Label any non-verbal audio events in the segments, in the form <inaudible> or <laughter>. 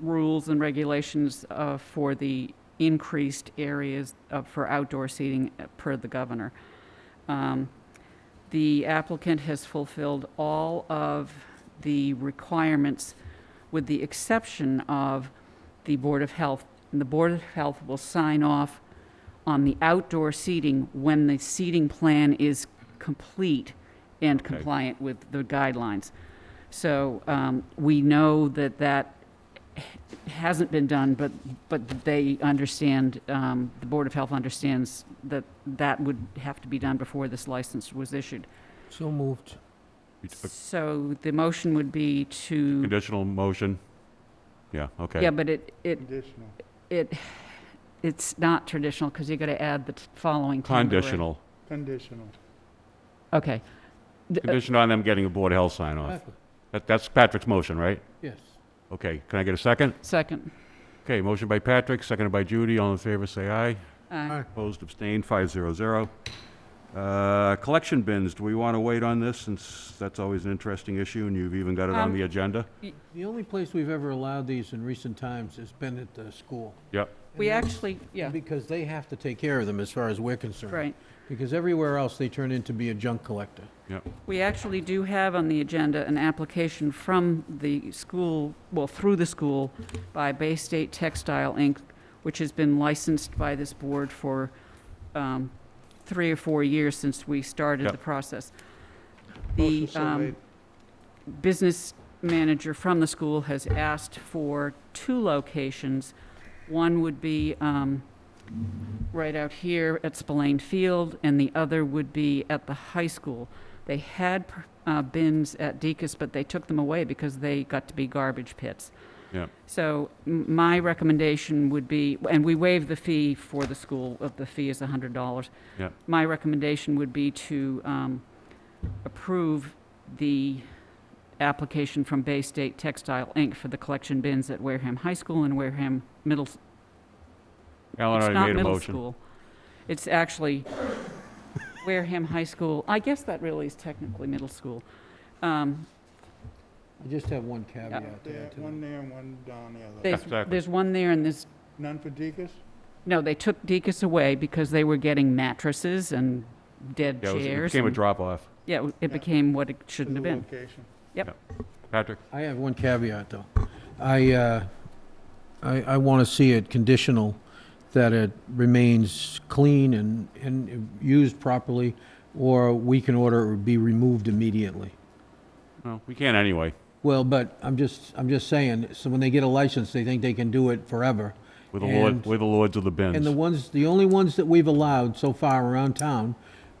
rules and regulations uh, for the increased areas of- for outdoor seating uh, per the governor. Um, The applicant has fulfilled all of the requirements with the exception of the Board of Health. And the Board of Health will sign off on the outdoor seating when the seating plan is complete and Okay. compliant with the guidelines. So um, we know that that hasn't been done, but, but they understand, um, the Board of Health understands that that would have to be done before this license was issued. So moved. It's a So the motion would be to, Conditional motion? Yeah, okay. yeah, but it, it, Conditional. it, it's not traditional, because you got to add the t- following temporary. Conditional. Conditional. Okay. D- uh, Conditioned on them getting a Board of Health sign off. Exactly. That, that's Patrick's motion, right? Yes. Okay, can I get a second? Second. Okay, motion by Patrick, seconded by Judy. All in favor, say aye. Uh, Opposed, abstained, five zero zero. Uh, collection bins, do we want to wait on this since that's always an interesting issue and you've even got it on Um, the agenda? The only place we've ever allowed these in recent times has been at the school. Yep, We And that's actually, yeah, Because they have to take care of them as far as we're concerned. right. Because everywhere else, they turn into be a junk collector. yep. We actually do have on the agenda an application from the school, well, through the school, by Bay State Textile, Inc., which has been licensed by this board for um, three or four years since we started Yep. the process. The Motion so um, made. business manager from the school has asked for two locations. One would be um, right out here at Spillane Field, and the other would be at the high school. They had uh, bins at Deacon's, but they took them away because they got to be garbage pits. Yeah. So m- my recommendation would be, and we waive the fee for the school, uh, the fee is $100. Yeah. My recommendation would be to um, approve the application from Bay State Textile, Inc. for the collection bins at Wareham High School and Wareham Middle, s- Alan it's already not made a middle motion. school. It's actually Wareham High School. I guess that really is technically middle school. Um, I just have one caveat to There, add to one that. there and one down the other. There's, Exactly. there's one there and there's, None for Deacon's? no, they took Deacon's away because they were getting mattresses and dead Yeah, it was- it chairs. became a and- drop-off. Yeah, it became what it shouldn't have been. Location. Patrick? I have one caveat, though. I, uh, I, I want to see it conditional, that it remains clean and, and used properly, or we can order it be removed immediately. No, we can't anyway. Well, but I'm just, I'm just saying, so when they get a license, they think they can do it forever. We're the lord, And- we're the lords of the And the bins. ones, the only ones that we've allowed so far around town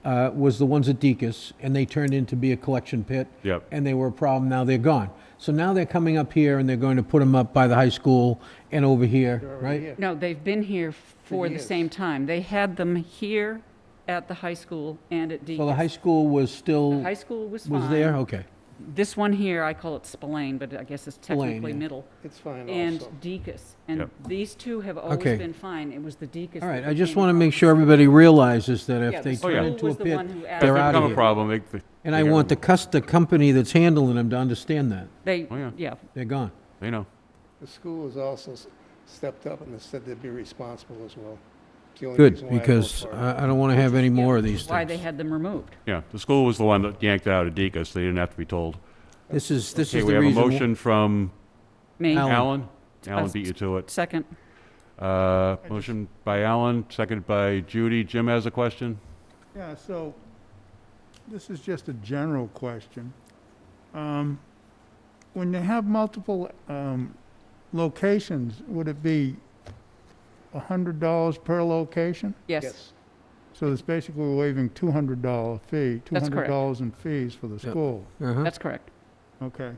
uh, was the ones at Deacon's, and they turned into be a collection pit. Yep. And they were a problem, now they're gone. So now they're coming up here and they're going to put them up by the high school and over here, right? No, they've been here for the years. same time. They had them here at the high school and at Well, the Deacon's. high school was still, The high school was fine. was there, okay. This one here, I call it Spillane, but I guess it's Spillane, technically yeah. middle. It's fine and also. Deacon's. And Yep. these two have always Okay. been fine. It was the Deacon's. All right, that I just became a want to problem. make sure everybody realizes that Yeah, if the they school turn into was a the pit, one who asked they're them out to Become of do a here. problem. they- they- And they I get want the removed. cus, the company that's handling them to understand that. They, Oh, yeah. yeah, They're gone. They know. The school has also s- stepped up and has said they'd be responsible as well. It's the only reason Good, why I vote because for it. I, I don't want to have any more of these why they things. had them removed. Yeah, the school was the one that yanked out of Deacon's. They didn't have to be told. This is, this Okay, is we the have a reason. motion from Me, Alan. Alan. Alan beat you to it. second. Uh, Motion by Alan, seconded by Judy. Jim has a question? Yeah, so this is just a general question. Um, When they have multiple um, locations, would it be $100 per location? Yes, So it's basically waiving $200 fee, That's correct. $200 in fees for the Yeah. school. Uh-huh. that's correct. Okay.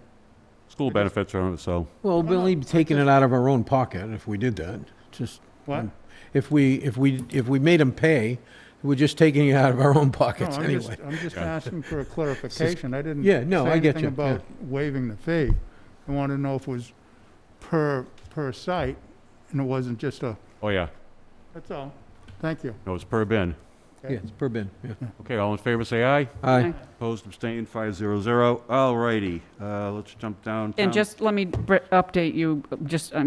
School I just- benefits from it, so, Well, no, we'll only be taking it out of our own pocket if we did that. Just, What? Mm. if we, if we, if we made them pay, we're just taking it out of our own No, pockets I'm just, anyway. I'm <laughs> just Yeah. asking for a clarification. I didn't Yeah, no, say I get anything you, yeah. about waiving the fee. I wanted to know if it was per, per site, and it wasn't just a, oh yeah, that's all. Thank you. no, it's per bin. Okay. Yeah, it's per bin, yeah. Okay, all in favor, say aye. Aye. Opposed, abstained, five zero zero. All righty, uh, let's jump down. And just let me br- update you, just, um,